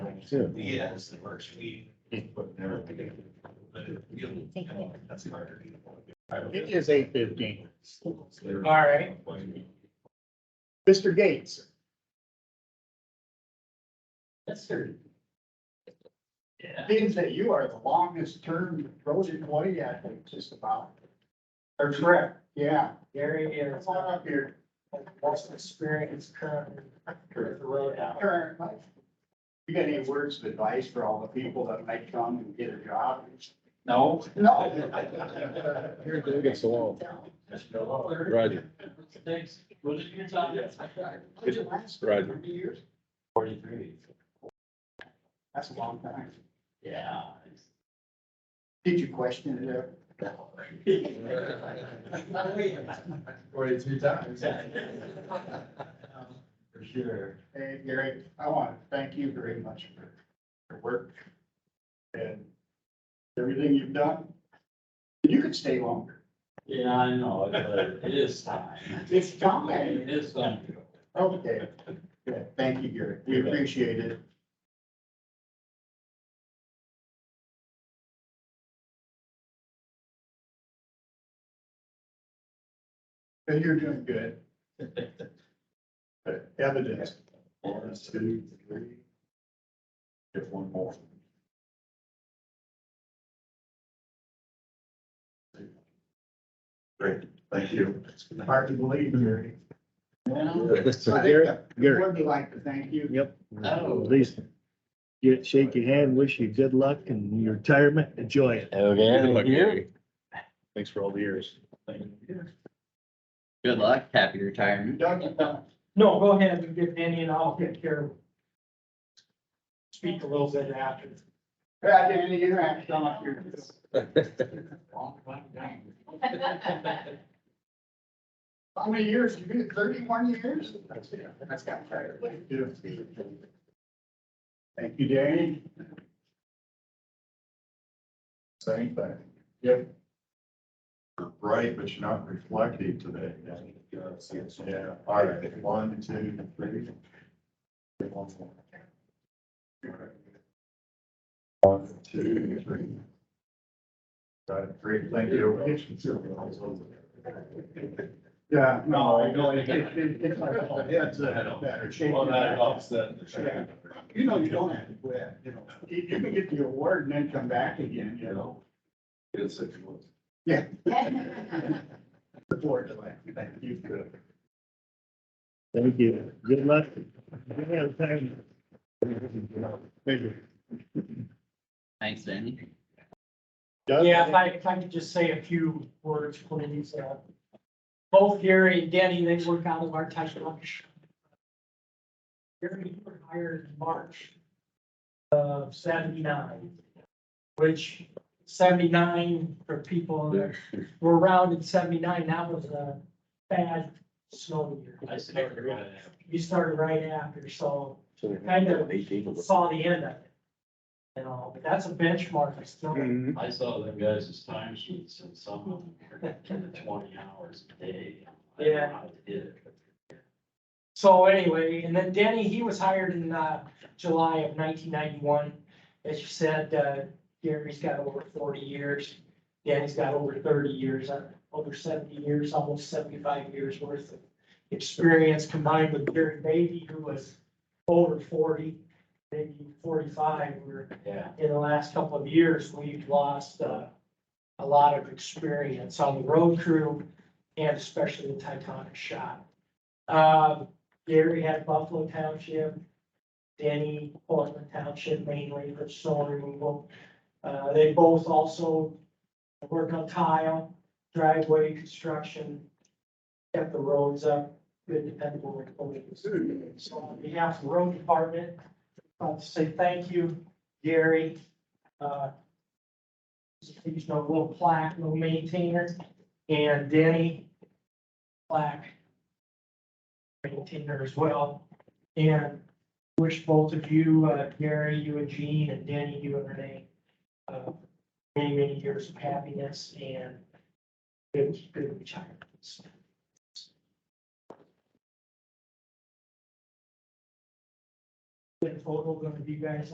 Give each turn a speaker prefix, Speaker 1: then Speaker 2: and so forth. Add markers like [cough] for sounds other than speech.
Speaker 1: too.
Speaker 2: Yes, it works. We put everything. But it- you know, that's harder.
Speaker 1: It is eight fifteen.
Speaker 2: All
Speaker 3: right.
Speaker 1: Mr. Gates,
Speaker 3: Yes, sir. Yeah.
Speaker 4: Means that you are the longest term road employee, I think, just about. Or correct, yeah.
Speaker 3: Gary is
Speaker 4: Come on up here.
Speaker 3: most experienced currently with the road out.
Speaker 4: Karen, Mike, You got any words of advice for all the people that might come and get a job?
Speaker 2: No.
Speaker 4: No.
Speaker 1: Here, go against the wall. Roger.
Speaker 3: Thanks. What did you talk
Speaker 4: Did it last
Speaker 1: Right.
Speaker 4: Forty years?
Speaker 2: Forty-three.
Speaker 4: That's a long time.
Speaker 3: Yeah.
Speaker 4: Did you question it ever?
Speaker 2: Forty-three times. [laughs] For sure.
Speaker 4: Hey, Gary, I want to thank you very much for your work and everything you've done. You could stay longer.
Speaker 3: Yeah, I know, but it is time.
Speaker 4: It's
Speaker 3: It is time.
Speaker 4: Okay, good. Thank you, Gary. We appreciate it. And you're doing good. But Evidence. One, two, three. Get one more. Great, thank you. Hard to believe, Gary.
Speaker 1: So
Speaker 4: I
Speaker 1: Gary,
Speaker 4: think the
Speaker 1: Gary,
Speaker 4: board would like to thank you.
Speaker 1: yep.
Speaker 3: Oh.
Speaker 1: At least get, shake your hand, wish you good luck in your retirement. Enjoy it.
Speaker 5: Okay, thank you.
Speaker 1: Thanks for all the years.
Speaker 5: Good luck, happy retirement.
Speaker 4: Doug, you done.
Speaker 3: No, go ahead and get Danny and I'll take care of. Speak a little bit after.
Speaker 4: Yeah, Danny, you have done up your. How many years? You've been thirty-one years? That's got tired. Thank you, Danny.
Speaker 6: Same thing. Yep. You're bright, but you're not reflective today. Yeah, all right, one, two, three. One, two, three. Got it, great, thank you.
Speaker 4: Yeah, no,
Speaker 6: Oh,
Speaker 4: I know. it- it- it- it's like-
Speaker 6: It's a better shape. Well, that helps then.
Speaker 4: You know, you don't have to quit, you know. You, you can get the award and then come back again, you know.
Speaker 6: It's a good one.
Speaker 4: Yeah. The board, is like, thank you for
Speaker 1: Thank you. Good luck. Good retirement. Thank you.
Speaker 5: Thanks, Danny.
Speaker 1: Doug?
Speaker 3: Yeah, if I, if I could just say a few words, please. Uh, Both Gary and Denny, they work out of our touch lunch. Gary, you were hired in March of seventy-nine, which seventy-nine for people that were around in seventy-nine, that was a bad snow year.
Speaker 2: I started right after.
Speaker 3: You started right after, so kind of saw the end of it. And all, but that's a benchmark, it's still.
Speaker 1: Mm-hmm.
Speaker 2: I saw them guys' time sheets and some of them were getting twenty hours a day. I don't know how they did it, but
Speaker 3: So anyway, and then Denny, he was hired in uh, July of nineteen ninety-one. As you said, uh, Gary's got over forty years. Denny's got over thirty years, uh, over seventy years, almost seventy-five years worth of experience combined with Gary Beatty, who was over forty, maybe forty-five, where
Speaker 2: Yeah,
Speaker 3: in the last couple of years, we've lost uh, a lot of experience on the road crew and especially the Titanic shop. Uh, Gary had Buffalo Township, Denny, Portland Township mainly for snow removal. Uh, They both also worked on tile, driveway construction, kept the roads up, good dependable employees. So on behalf of the road department, I want to say thank you Gary. uh, He's no little plaque, no maintainer, and Denny plaque maintainer as well. And wish both of you, uh, Gary, you and Gene, and Denny, you and Renee, uh, many, many years of happiness and good, good retirements. Get a photo of you guys